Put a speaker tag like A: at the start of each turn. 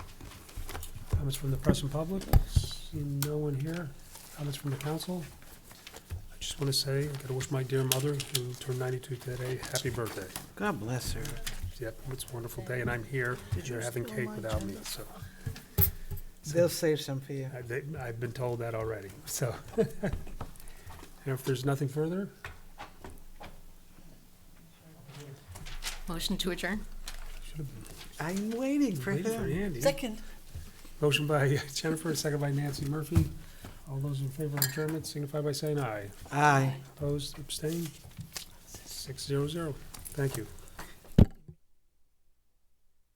A: Comments from the press and public? Seeing no one here. Comments from the council? I just want to say, I gotta wish my dear mother, who turned ninety-two today, happy birthday.
B: God bless her.
A: Yep, it's a wonderful day, and I'm here, and you're having cake without me, so.
B: They'll save some for you.
A: I- they- I've been told that already, so. And if there's nothing further,
C: Motion to adjourn?
A: should have been
B: I'm waiting for
A: waiting for
B: him.
A: Andy.
D: Second.
A: Motion by Jennifer, second by Nancy Murphy. All those in favor of adjournment signify by saying aye.
B: Aye.
A: Opposed, abstained? Six zero zero. Thank you.